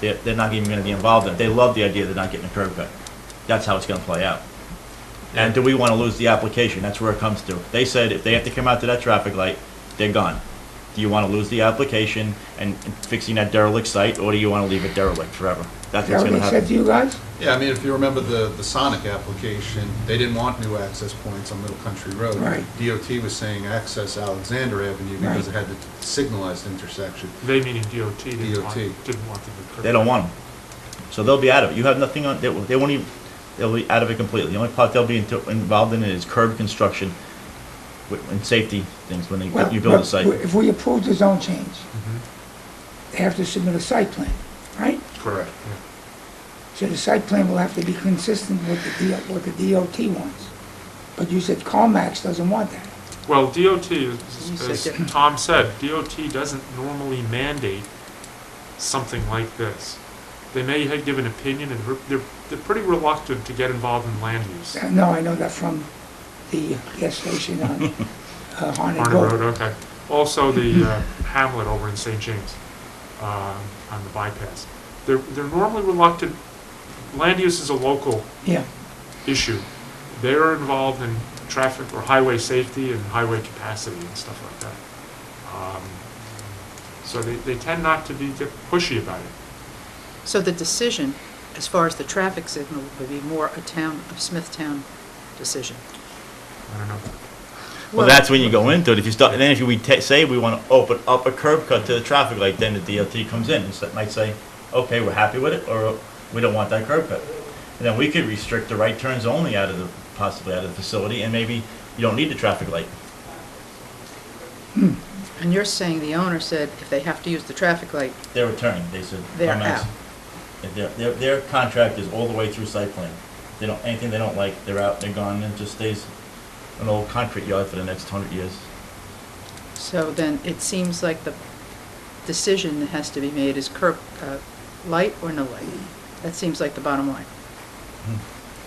they're, they're not even gonna be involved in it. They love the idea they're not getting a curb cut. That's how it's gonna play out. And do we wanna lose the application? That's where it comes to. They said if they have to come out to that traffic light, they're gone. Do you wanna lose the application and and fixing that derelict site, or do you wanna leave it derelict forever? That's what's That gonna makes sense happen. to you guys? Yeah, I mean, if you remember the, the Sonic application, they didn't want new access points on Middle Country Road. Right. DOT was saying access Alexander Avenue because it had the signalized intersection. They meaning DOT didn't want, DOT. didn't want them to. They don't want them. So they'll be out of it. You have nothing on, they, won't- they won't even, they'll be out of it completely. The only part they'll be into- involved in is curb construction with- and safety things when they, Well, you build a but site. If we approve the zone change, Mm-hmm. they have to submit a site plan, right? Correct. So the site plan will have to be consistent with the DO, what the DOT wants. But you said CarMax doesn't want that. Well, DOT, is- as Tom said, DOT doesn't normally mandate something like this. They may ha- give an opinion, and re- they're, they're pretty reluctant to get involved in land use. Uh, No, I know that from the gas station on uh, Harnett Barnard Road, Road. okay. Also, the uh, Hamlet over in St. James, um, on the bypass. They're, they're normally reluctant, land use is a local Yeah, issue. They're involved in traffic or highway safety and highway capacity and stuff like that. Um, So they, they tend not to be get pushy about it. So the decision, as far as the traffic signal, would be more a town, of Smithtown decision. I don't know. Well, that's when you go into it. If you start, then if we ta say we want to open up a curb cut to the traffic light, then the DOT comes in and s- might say, okay, we're happy with it, or we don't want that curb cut. And then we could restrict the right turns only out of the, possibly out of the facility, and maybe you don't need the traffic light. And you're saying the owner said if they have to use the traffic light, They're returning, they said. They're "Come out." out. And Their, their, their contract is all the way through site plan. They don't, anything they don't like, they're out, they're gone, and it just stays an old concrete yard for the next hundred years. so then it seems like the decision that has to be made is curb, uh, light or no light? That seems like the bottom line.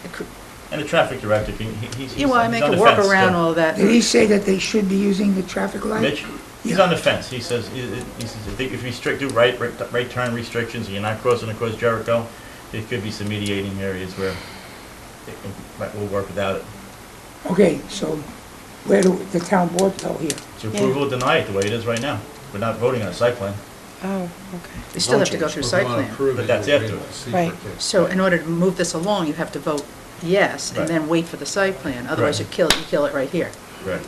It could- And the traffic director, he, he- he's. Hmm. You want he's to make on a the fence workaround still. all that. did he say that they should be using the traffic light? Mitch, he's on the fence. He says, he he says, if they- if you restrict, do right, right right turn restrictions, and you're not crossing across Jericho, there could be some mediating areas where it it might, will work without it. Okay, so where do the town board go here? So approval or deny it the way it is right now. We're not voting on a site plan. Oh, okay. They still have to go through site plan. But that's after. Right. So in order to move this along, you have to vote yes Right. and then wait for the site plan. Otherwise, you Right. kill, you kill it right here. Right.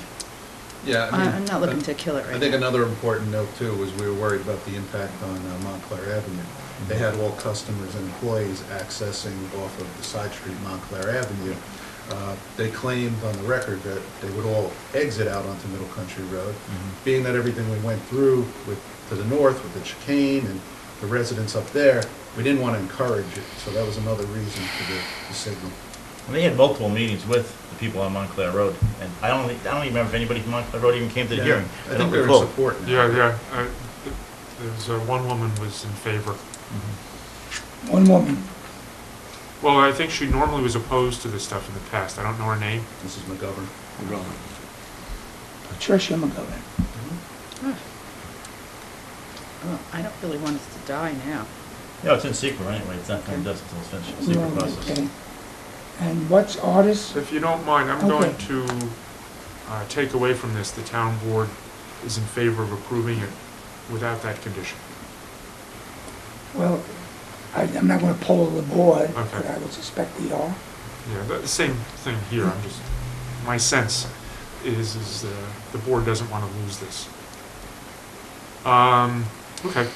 Yeah. I I- mean, Uh, I'm not looking to kill it right I think now. another important note too was we were worried about the impact on uh, Montclair Avenue. They had all customers and employees accessing off of the side street Montclair Avenue. Uh, They claimed on the record that they would all exit out onto Middle Country Road. Mm-hmm. Being that everything we went through with, to the north with the chicane and the residents up there, we didn't want to encourage it, so that was another reason for the the signal. And they had multiple meetings with the people on Montclair Road, and I don't, think- I don't even remember if anybody from Montclair Road even came to the Yeah, hearing. I don't think they were in recall. support now. Yeah, yeah, uh, th- there's, uh, one woman was in favor. One woman, Well, I think she normally was opposed to this stuff in the past. I don't know her name. Mrs. McGovern. Patricia McGovern. Oh, I don't really want it to die now. No, it's in secret anyway. It's not going to dust until it's finished, secret Right, process. okay. And what's artist? If you don't mind, I'm Okay. going to uh, take away from this, the town board is in favor of approving it without that condition. Well, I- I'm not going to poll the board, Okay. but I would suspect we are. Yeah, the the same thing here, I'm just, my sense is, is uh, the board doesn't want to lose this. Um, okay.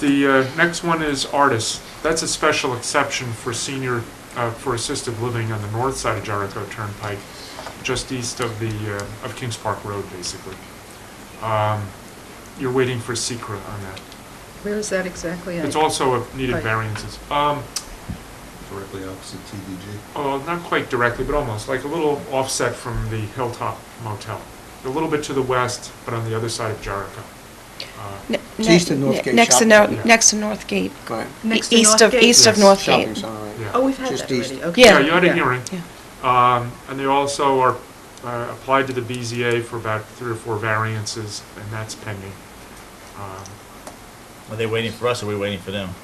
The uh, next one is artists. That's a special exception for senior, uh, for assisted living on the north side of Jericho Turnpike, just east of the, uh, of Kings Park Road, basically. Um, You're waiting for secret on that. Where is that exactly? I- It's also a needed Right. variances. Um, directly opposite TDG. Oh, not quite directly, but almost, like a little offset from the Hilltop Motel. A little bit to the west, but on the other side of Jericho. Uh, Ne- It's ne- east of North ne- Gate Next to, Shopping. no- next to North Gate. Go ahead. Next to E- east North of- Gate? East of Yes. North Shopping Gate. center, right. Yeah. Oh, we've had Just that already, east. okay. Yeah, you had a Yeah. hearing. Yeah. Um, And they also are, uh, applied to the BZA for about three or four variances, and that's pending. Um, Are they waiting for us or are we waiting for them?